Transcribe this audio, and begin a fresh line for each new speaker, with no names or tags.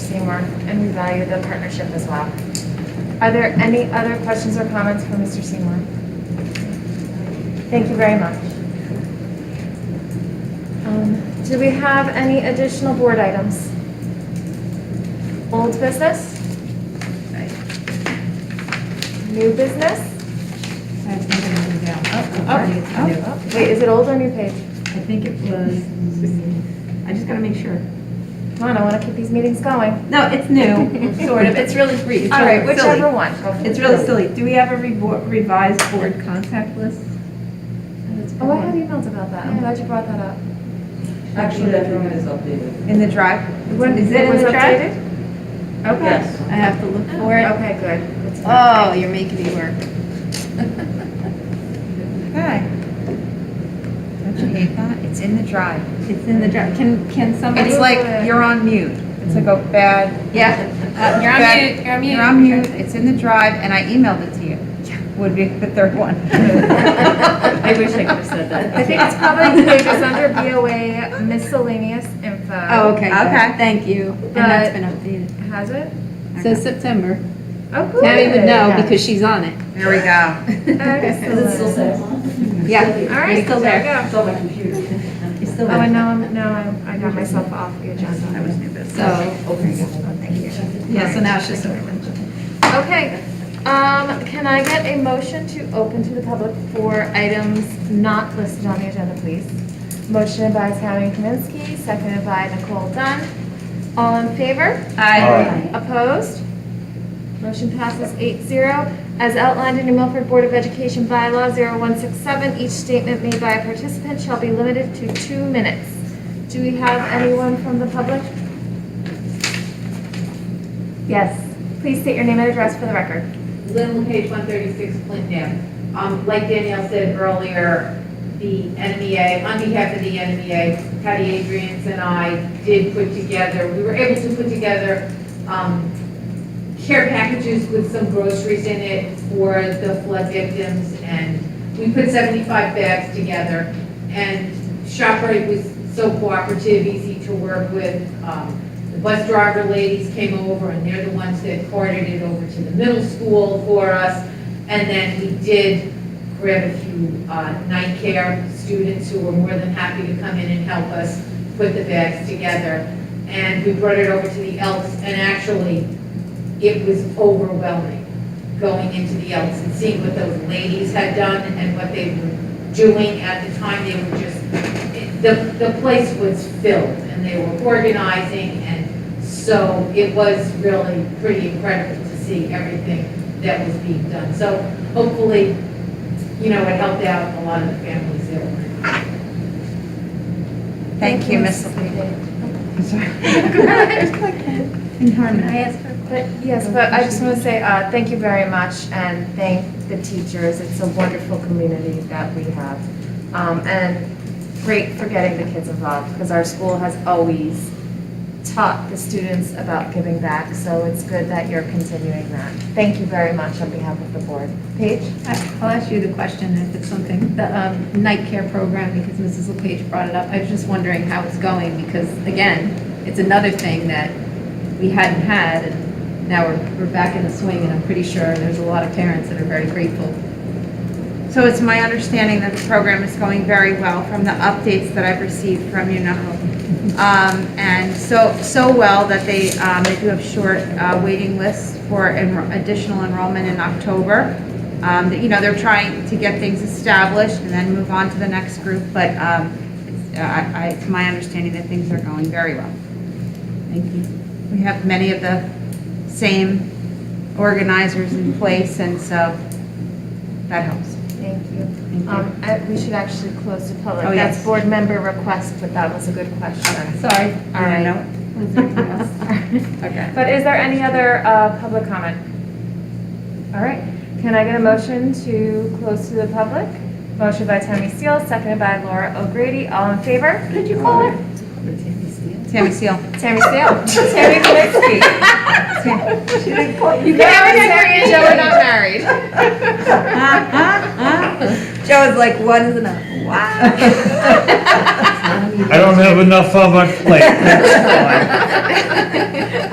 Seymour, and we value the partnership as well. Are there any other questions or comments for Mr. Seymour? Thank you very much. Um, Do we have any additional board items? Old business? New business?
I have something to do now.
up,
I think it's new.
Wait, is it old or new page?
I think it was, I just gotta make sure.
Come on, I want to keep these meetings going.
No, it's new, sort of, it's really brief. It's
All
really
right,
silly.
whichever one. go for
It's
it.
really silly. Do we have a revo- revised board contact list?
Oh, I had emails about that. I'm glad you brought that up.
Actually, I think it is updated.
In the drive?
When-
Is it in
was
the drive?
updated?
Okay,
Yes.
I have to look for it.
Okay, good. It's fine.
Oh, you're making me work. Okay.
Don't you hate that? It's in the drive.
It's in the drive. Can, can somebody?
It's like, you're on mute. It's like a bad.
Yeah. Uh, You're on mute, you're on mute.
You're on mute, it's in the drive, and I emailed it to you. Would be the third one.
I
wish I could have said
I think it's probably the pages under BOA miscellaneous info.
Oh, okay. good.
Okay.
Thank you. And that's been updated.
Has it?
So September.
Oh, cool.
Now you would know because she's on it.
There we go.
Is it still
Excellent.
set?
Yeah.
All right,
You're still
there you
there.
go.
It's on my computer. It's still
Oh, and now I'm, now I'm- I got myself off the
That
agenda.
was new business.
So, yeah, so now it's just over.
Okay, um, can I get a motion to open to the public for items not listed on the agenda, please? Motion by Sally Kaminsky, seconded by Nicole Dunn. All in favor?
Aye.
Opposed? Motion passes 8-0. As outlined in New Milford Board of Education bylaw 0167, each statement made by a participant shall be limited to two minutes. Do we have anyone from the public? Yes. Please state your name and address for the record.
Lynn LePage, 136 Clinton. Um, Like Danielle said earlier, the NMEA, on behalf of the NMEA, Patty Adrians and I did put together, we were able to put together um, care packages with some groceries in it for the flood victims, and we put 75 bags together. And ShopRite was so cooperative, easy to work with. Um, the bus driver ladies came over, and they're the ones that carted it over to the middle school for us. And then we did grab a few uh, night care students who were more than happy to come in and help us put the bags together. And we brought it over to the Elks, and actually, it was overwhelming going into the Elks and seeing what those ladies had done and what they were doing at the time. They were just, it- the, the place was filled, and they were organizing, and so it was really pretty incredible to see everything that was being done. So hopefully, you know, it helped out a lot of the families that were.
Thank you, Miss. I'm sorry.
In harmony.
But, yes, but I just want to say, uh, thank you very much and thank the teachers. It's a wonderful community that we have. Um, and great for getting the kids involved because our school has always taught the students about giving back. So it's good that you're continuing that. Thank you very much on behalf of the board. Paige?
I'll ask you the question if it's something, the um, night care program, because Mrs. LePage brought it up. I was just wondering how it's going, because again, it's another thing that we hadn't had, and now we're, we're back in the swing, and I'm pretty sure there's a lot of parents that are very grateful.
So it's my understanding that the program is going very well from the updates that I've received from UNO. Um, and so, so well that they, um, they do have short, uh, waiting lists for enro- additional enrollment in October. Um, you know, they're trying to get things established and then move on to the next group, but, um, it's, I, I, it's my understanding that things are going very well. Thank you. We have many of the same organizers in place and so that helps.
Thank you.
Thank you.
Um, I- we should actually close the public.
Oh, yes.
That's board member request, but that was a good question.
Sorry.
All right.
Was there anything else?
Okay.
But is there any other uh, public comment? All right, can I get a motion to close to the public? Motion by Tammy Steele, seconded by Laura O'Grady, all in favor? Could you call her?
Tammy Seal.
Tammy Steele. Tammy Kaminsky. You can't Tammy and Joe are not married.
Joe was like, one is enough. Wow.
I don't have enough on my plate. That's fine.